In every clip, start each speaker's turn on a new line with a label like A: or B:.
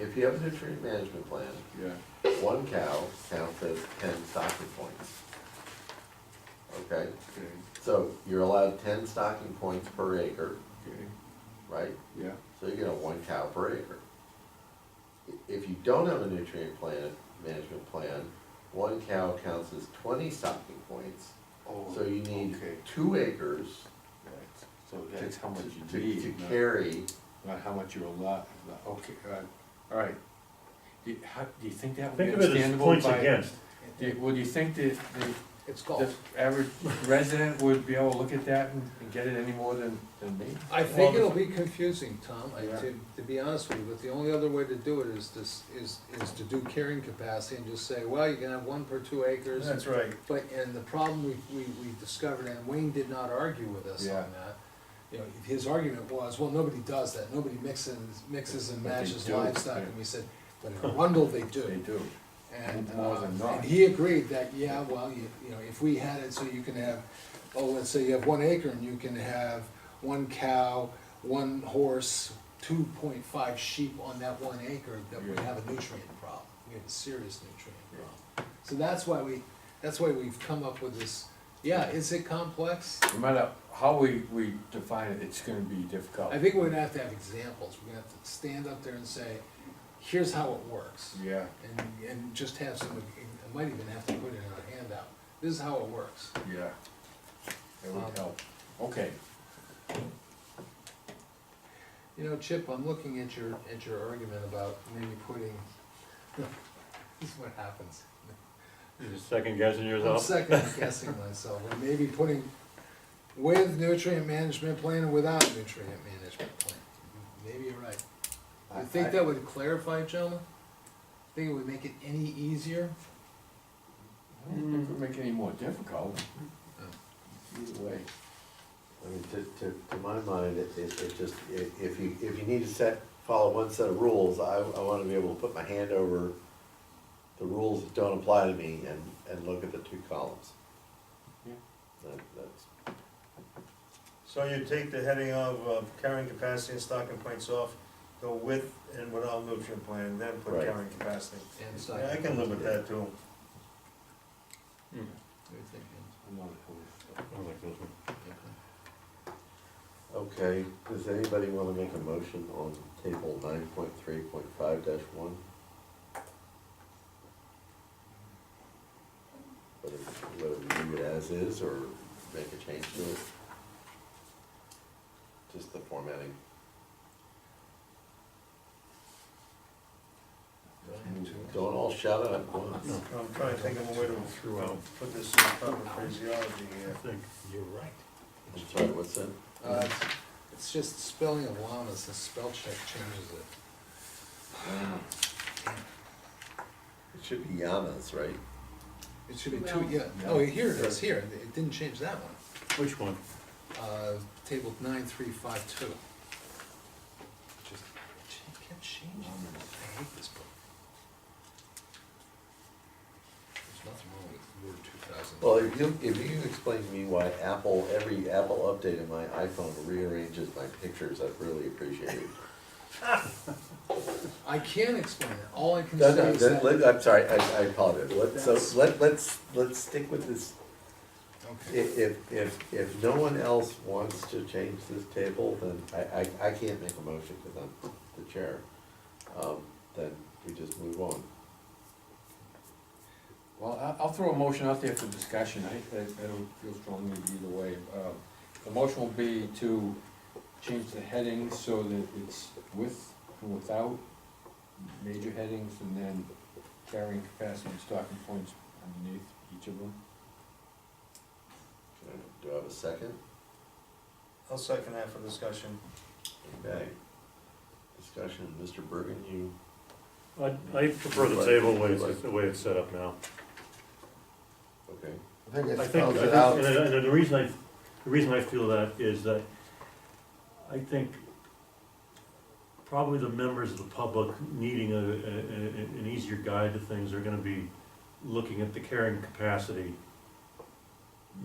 A: if you have a nutrient management plan,
B: yeah.
A: one cow counts as ten stocking points. Okay,
B: Okay,
A: so you're allowed ten stocking points per acre,
B: okay,
A: right?
B: yeah,
A: So you get a one cow per acre. I- If you don't have a nutrient plan, management plan, one cow counts as twenty stocking points.
C: Oh,
A: So you need
C: okay.
A: two acres
C: That's- So
B: to-
C: that's how much
A: to,
C: you need.
A: to
B: no.
A: carry.
B: not how much you're allowed, okay, uh, all right. Do, you- how, do you think that would be
D: Think of it as
B: understandable
D: points
B: by-
D: against.
B: Do, you- well, do you think that, the
E: It's
B: the
E: golf.
B: average resident would be able to look at that and, and get it any more than, than me?
E: I think it'll be confusing, Tom, I,
B: Yeah.
E: to, to be honest with you, but the only other way to do it is this, is, is to do carrying capacity and just say, well, you can have one per two acres.
D: That's right.
E: But, and the problem we, we, we discovered, and Wayne did not argue with us
B: Yeah.
E: on that. You know, his argument was, well, nobody does that, nobody mixes, mixes and
B: But they
E: matches
B: do,
E: livestock,
B: yeah.
E: and we said, but in Arundel, they do.
B: They do,
E: And,
B: More
E: uh,
B: than not.
E: and he agreed that, yeah, well, you, you know, if we had it so you can have, oh, let's say you have one acre and you can have one cow, one horse, two point five sheep on that one acre, that we
B: Yeah.
E: have a nutrient problem, we have a serious nutrient problem. So that's why we, that's why we've come up with this, yeah, is it complex?
B: no matter how we, we define it, it's gonna be difficult.
E: I think we're gonna have to have examples, we're gonna have to stand up there and say, here's how it works.
B: Yeah,
E: and, and just have some, I might even have to put it in a handout, this is how it works.
B: yeah, that
E: Um,
B: would help, okay,
E: You know, Chip, I'm looking at your, at your argument about maybe putting, this is what happens.
D: You're just second guessing
E: I'm
D: yourself.
E: second guessing myself, or maybe putting with nutrient management plan and without nutrient management plan. Maybe you're right.
B: I-
E: You think
B: I-
E: that would clarify, gentlemen? Think it would make it any easier?
B: I don't think it would make it any more difficult. Either way,
A: I mean, to, to, to my mind, it, it, it just, i- if you, if you need to set, follow one set of rules, I, I wanna be able to put my hand over the rules that don't apply to me and, and look at the two columns.
B: Yeah.
A: That, that's,
F: So you take the heading of, of carrying capacity and stocking points off, go with and without nutrient plan, and then put
A: Right.
F: carrying capacity.
E: And so.
F: Yeah, I can live with that too.
B: I'm not opposed.
A: okay, does anybody wanna make a motion on table nine point three point five dash one? Whether, whether we leave it as is or make a change to it? Just the formatting. Don't all shout out at once.
F: I'm trying to think of a way to uh, put this in proper phraseology
D: I
F: here.
D: think you're right.
A: I'm sorry, what's that?
E: Uh, it's- It's just spelling of llamas, the spell check changes it.
A: It should be Yamas, right?
E: It should be two,
G: Well-
E: yeah, oh, here it is, here, it didn't change that one.
D: Which one?
E: Uh, table nine, three, five, two. Just ch- kept changing, I hate this book. There's nothing wrong with Word two thousand.
A: Well, if you, if you can explain to me why Apple, every Apple update in my iPhone rearranges my pictures, I'd really appreciate it.
E: I can't explain it, all I can
A: No,
E: say
A: no,
E: is
A: that-
E: that, okay,
A: let- I'm sorry, I, I apologize. Let,
E: That's-
A: so, let, let's, let's stick with this. I- If, if, if no one else wants to change this table, then I, I, I can't make a motion because I'm the chair. Um, then we just move on.
B: Well, I- I'll throw a motion out there for discussion, I, I I don't feel strongly either way. Um, The motion will be to change the heading so that it's with and without major headings, and then carrying capacity and stocking points underneath each of them.
A: Do I have a second?
F: I'll second that for discussion.
A: Okay. Discussion, Mr. Bergen, you,
D: I, I prefer the table the way it's, the way it's set up now.
A: okay.
C: I think
D: I
C: it
D: think,
C: spells it
D: I
C: out.
D: think- and, and the reason I, the reason I feel that is that I think probably the members of the public needing a, a, a- an easier guide to things are gonna be looking at the carrying capacity.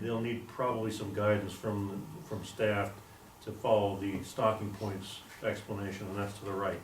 D: They'll need probably some guidance from, from staff to follow the stocking points explanation, and that's to the right.